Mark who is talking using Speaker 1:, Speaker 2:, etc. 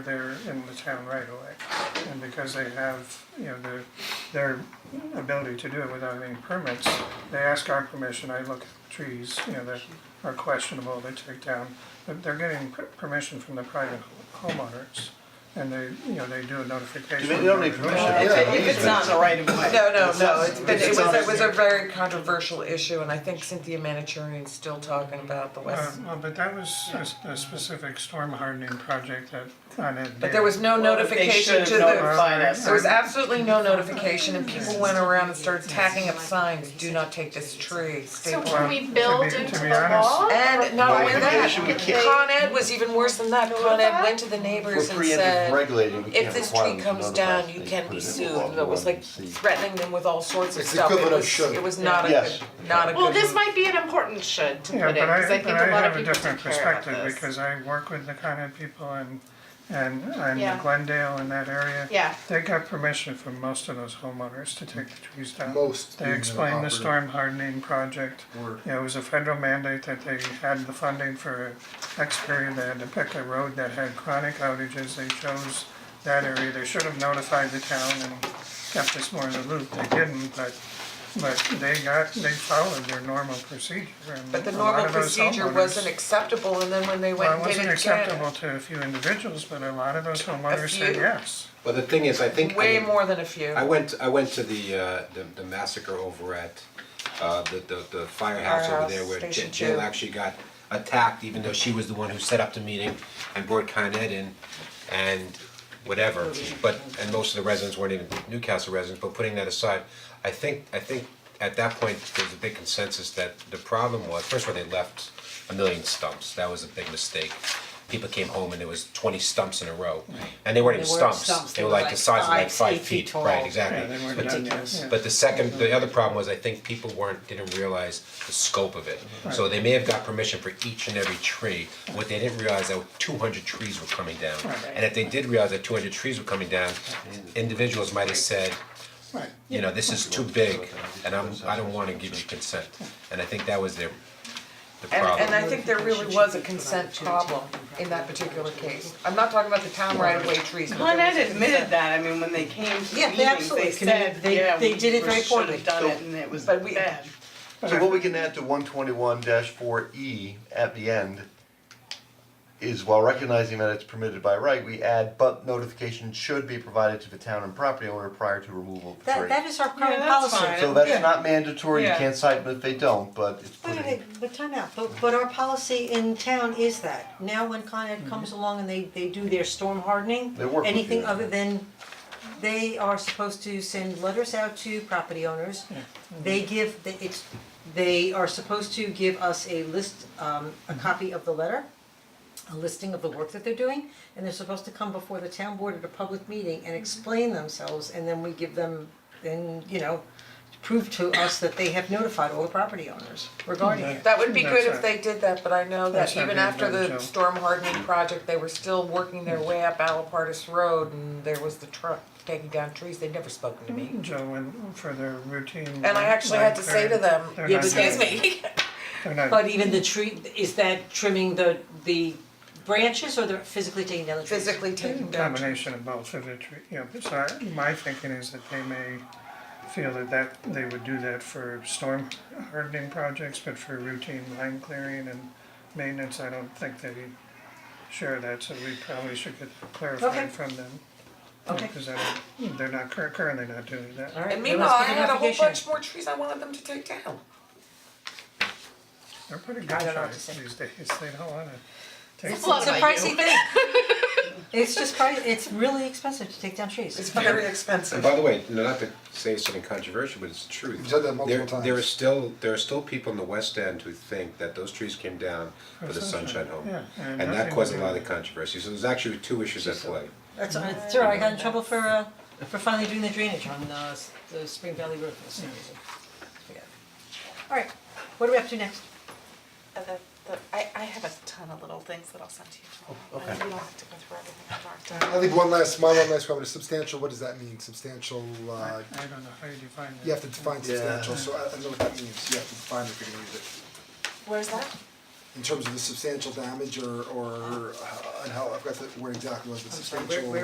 Speaker 1: they're in the town right away. And because they have, you know, their, their ability to do it without any permits, they ask our permission, I look at trees, you know, that are questionable, they take down. But they're getting per- permission from the private homeowners and they, you know, they do a notification.
Speaker 2: They don't need permission.
Speaker 3: If it- if it's
Speaker 2: easement.
Speaker 3: not in the right of way.
Speaker 4: No, no,
Speaker 3: It's
Speaker 4: no,
Speaker 3: not-
Speaker 4: it's been, it
Speaker 3: it's
Speaker 4: was,
Speaker 3: not-
Speaker 4: it was a very controversial issue, and I think Cynthia Manichurian's still talking about the
Speaker 1: Uh,
Speaker 4: West.
Speaker 1: well, but that was a, s- a specific storm hardening project that Con Ed did.
Speaker 4: But there was no
Speaker 3: Well, they
Speaker 4: notification
Speaker 3: should've
Speaker 4: to the,
Speaker 3: notified us.
Speaker 4: there was absolutely no notification, and people went around and started tacking up signs, do not take this tree, stay
Speaker 5: So
Speaker 4: away."
Speaker 5: can we
Speaker 1: to
Speaker 5: build
Speaker 1: be- to
Speaker 5: into
Speaker 1: be
Speaker 5: the
Speaker 1: honest-
Speaker 5: law?
Speaker 4: And not only that,
Speaker 2: Notification, we can't-
Speaker 4: Con Ed was even worse than that, Con Ed went to the neighbors
Speaker 2: We're
Speaker 4: and
Speaker 2: preemptive
Speaker 4: said,
Speaker 2: regulating, we
Speaker 4: if
Speaker 2: can't
Speaker 4: this
Speaker 2: require
Speaker 4: tree
Speaker 2: them to
Speaker 4: comes
Speaker 2: notify us.
Speaker 4: down, you
Speaker 2: They
Speaker 4: can
Speaker 2: put
Speaker 4: be
Speaker 2: it in the
Speaker 4: sued,
Speaker 2: law, we
Speaker 4: and it was
Speaker 2: want
Speaker 4: like
Speaker 2: to see.
Speaker 4: threatening them with all sorts of
Speaker 6: It's
Speaker 4: stuff, it
Speaker 6: equivalent of
Speaker 4: was,
Speaker 6: should.
Speaker 4: it was not a
Speaker 2: Yes.
Speaker 4: good, not a good.
Speaker 5: Well, this might be an important should to put in, cause I think a lot of people don't care about this.
Speaker 1: Yeah, but I, but I have a different perspective because I work with the Con Ed people and, and I'm
Speaker 5: Yeah.
Speaker 1: in Glendale in that area.
Speaker 5: Yeah.
Speaker 1: They got permission from most of those homeowners to take the trees down.
Speaker 6: Most
Speaker 1: They
Speaker 6: being an
Speaker 1: explained the
Speaker 6: operative
Speaker 1: storm hardening project.
Speaker 6: word.
Speaker 1: You know, It was a federal mandate that they had the funding for X period, they had to pick a road that had chronic outages, they chose that area, they should have notified the town and kept us more in the loop, they didn't, but, but they got, they followed their normal procedure and
Speaker 4: But
Speaker 1: a
Speaker 4: the
Speaker 1: lot
Speaker 4: normal
Speaker 1: of those
Speaker 4: procedure
Speaker 1: homeowners-
Speaker 4: wasn't acceptable, and then when they went
Speaker 1: Well, it
Speaker 4: and did
Speaker 1: wasn't
Speaker 4: it
Speaker 1: acceptable
Speaker 4: again,
Speaker 1: to a few individuals, but a lot of those homeowners said
Speaker 4: few.
Speaker 1: yes.
Speaker 6: Well, the thing is, I think, I
Speaker 4: way
Speaker 6: mean,
Speaker 4: more than a few.
Speaker 6: I went, I went to the uh, the the massacre over at uh the the the firehouse over there where
Speaker 4: Firehouse,
Speaker 6: J-
Speaker 4: Station
Speaker 6: Jill
Speaker 4: Two.
Speaker 6: actually got attacked, even though she was the one who set up the meeting and brought Con Ed in and whatever, but, and most of the residents weren't even Newcastle residents, but putting that aside, I think, I think at that point, there's a big consensus that the problem was, first of all, they left a million stumps, that was a big mistake. People came home and there was twenty stumps in a row, and they weren't even
Speaker 3: They weren't stumps,
Speaker 6: stumps, they were like the size of like
Speaker 3: five,
Speaker 6: five
Speaker 3: eight feet
Speaker 6: feet,
Speaker 3: tall.
Speaker 6: right, exactly.
Speaker 1: Yeah, they weren't
Speaker 6: But-
Speaker 1: done yet, yeah.
Speaker 6: but the second, the other problem was I think people weren't, didn't realize the scope of it. So they may have got permission for each and every tree, what they didn't realize that two hundred trees were coming down. And if they did realize that two hundred trees were coming down, individuals might have said,
Speaker 1: Right.
Speaker 6: you know, this is too big and I'm, I don't wanna give you consent. And I think that was their, the
Speaker 4: And
Speaker 6: problem.
Speaker 4: and I think there really was a consent problem in that particular case. I'm not talking about the town right of way trees, but
Speaker 3: Con
Speaker 4: there was
Speaker 3: Ed
Speaker 4: a
Speaker 3: admitted
Speaker 4: consent.
Speaker 3: that, I mean, when they came to the
Speaker 4: Yeah, they
Speaker 3: meetings,
Speaker 4: absolutely
Speaker 3: they
Speaker 4: committed-
Speaker 3: said,
Speaker 4: they-
Speaker 3: yeah,
Speaker 4: they
Speaker 3: we
Speaker 4: did it very
Speaker 3: we should
Speaker 4: poorly.
Speaker 3: have done
Speaker 2: So-
Speaker 3: it and it was
Speaker 4: But we-
Speaker 3: bad.
Speaker 2: So what we can add to one twenty-one four E at the end is while recognizing that it's permitted by right, we add, but notification should be provided to the town and property owner prior to removal of the tree.
Speaker 7: That that is our current
Speaker 3: Yeah, that's
Speaker 7: policy.
Speaker 3: fine.
Speaker 2: So that's
Speaker 3: yeah.
Speaker 2: not mandatory, you
Speaker 3: Yeah.
Speaker 2: can't cite them if they don't, but it's
Speaker 7: Wait,
Speaker 2: put
Speaker 7: wait,
Speaker 2: in.
Speaker 7: wait, but time out, but but our policy in town is that, now when Con
Speaker 3: Mm-hmm.
Speaker 7: Ed comes along and they they do their storm hardening,
Speaker 2: They work with
Speaker 7: anything
Speaker 2: you.
Speaker 7: other than, they are supposed to send letters out to property owners.
Speaker 3: Mm-hmm.
Speaker 7: They give, they it's, they are supposed to give us a list, um a
Speaker 3: Mm-hmm.
Speaker 7: copy of the letter, a listing of the work that they're doing, and they're supposed to come before the town board at a public meeting and explain themselves, and then we give them, then, you know, prove to us that they have notified all the property owners regarding it.
Speaker 4: That would be
Speaker 1: That's
Speaker 4: good if
Speaker 1: right.
Speaker 4: they did that, but I know
Speaker 1: That's
Speaker 4: that
Speaker 1: not
Speaker 4: even
Speaker 1: being
Speaker 4: after
Speaker 1: done,
Speaker 4: the
Speaker 1: Joe.
Speaker 4: storm hardening project, they were still working their way up Alapartis Road, and there was the truck taking down trees, they'd never spoken to me.
Speaker 1: Joe went for their routine.
Speaker 4: And I actually had to say to them,
Speaker 1: They're
Speaker 4: yeah,
Speaker 1: not
Speaker 7: excuse
Speaker 1: doing-
Speaker 4: me,
Speaker 1: They're not
Speaker 7: But even the tree, is that trimming the the branches or they're physically taking down the trees?
Speaker 4: physically taking down trees.
Speaker 1: combination of both of the tree, you know, so I- my thinking is that they may feel that that, they would do that for storm hardening projects, but for routine line clearing and maintenance, I don't think they share that, so we probably should get that
Speaker 7: Okay.
Speaker 1: clarified from them.
Speaker 7: Okay.
Speaker 1: Because I don't, they're not, cur- currently not doing that.
Speaker 7: All right,
Speaker 4: And
Speaker 7: there
Speaker 4: meanwhile,
Speaker 7: must
Speaker 4: I
Speaker 7: be
Speaker 4: had a whole
Speaker 7: notification.
Speaker 4: bunch more trees I wanted them to take down.
Speaker 1: They're pretty
Speaker 7: I don't know what
Speaker 1: gun
Speaker 7: to
Speaker 1: shy
Speaker 7: say.
Speaker 1: these days, they don't wanna take.
Speaker 5: It's a lot
Speaker 7: It's a
Speaker 5: about you.
Speaker 7: pricey thing. It's just pri- it's really expensive to take down trees.
Speaker 4: It's very expensive.
Speaker 6: And by the way, no, not to say something controversial, but it's the truth.
Speaker 8: You've said that multiple
Speaker 6: There- There are
Speaker 8: times.
Speaker 6: still, there are still people in the West End who think that those trees came down for the Sunshine Home.
Speaker 1: yeah, and
Speaker 6: And
Speaker 1: nothing
Speaker 6: that caused a
Speaker 1: to do
Speaker 6: lot
Speaker 1: with
Speaker 6: of controversy, so there's actually two issues at play.
Speaker 7: That's, all right. it's all right, I got in trouble for uh for finally doing the drainage on the s- the Spring Valley Road for some reason. Forget it. All right, what are we up to next?
Speaker 9: Uh, the, the, I, I have a ton of little things that I'll send to you
Speaker 3: Oh,
Speaker 9: tomorrow. Okay. You don't have to go through everything I've marked down.
Speaker 8: I think one last, my one last comment is substantial, what does that mean, substantial,
Speaker 1: I
Speaker 8: uh,
Speaker 1: I don't know how you define that.
Speaker 8: you have to define substantial, so I I don't know what that means, you have to define if you're gonna use it.
Speaker 9: Where's that?
Speaker 8: in terms of the substantial damage or or uh, and how, I forgot the word exactly was,
Speaker 1: I'm
Speaker 8: but
Speaker 1: sorry,
Speaker 8: substantial.
Speaker 1: where- where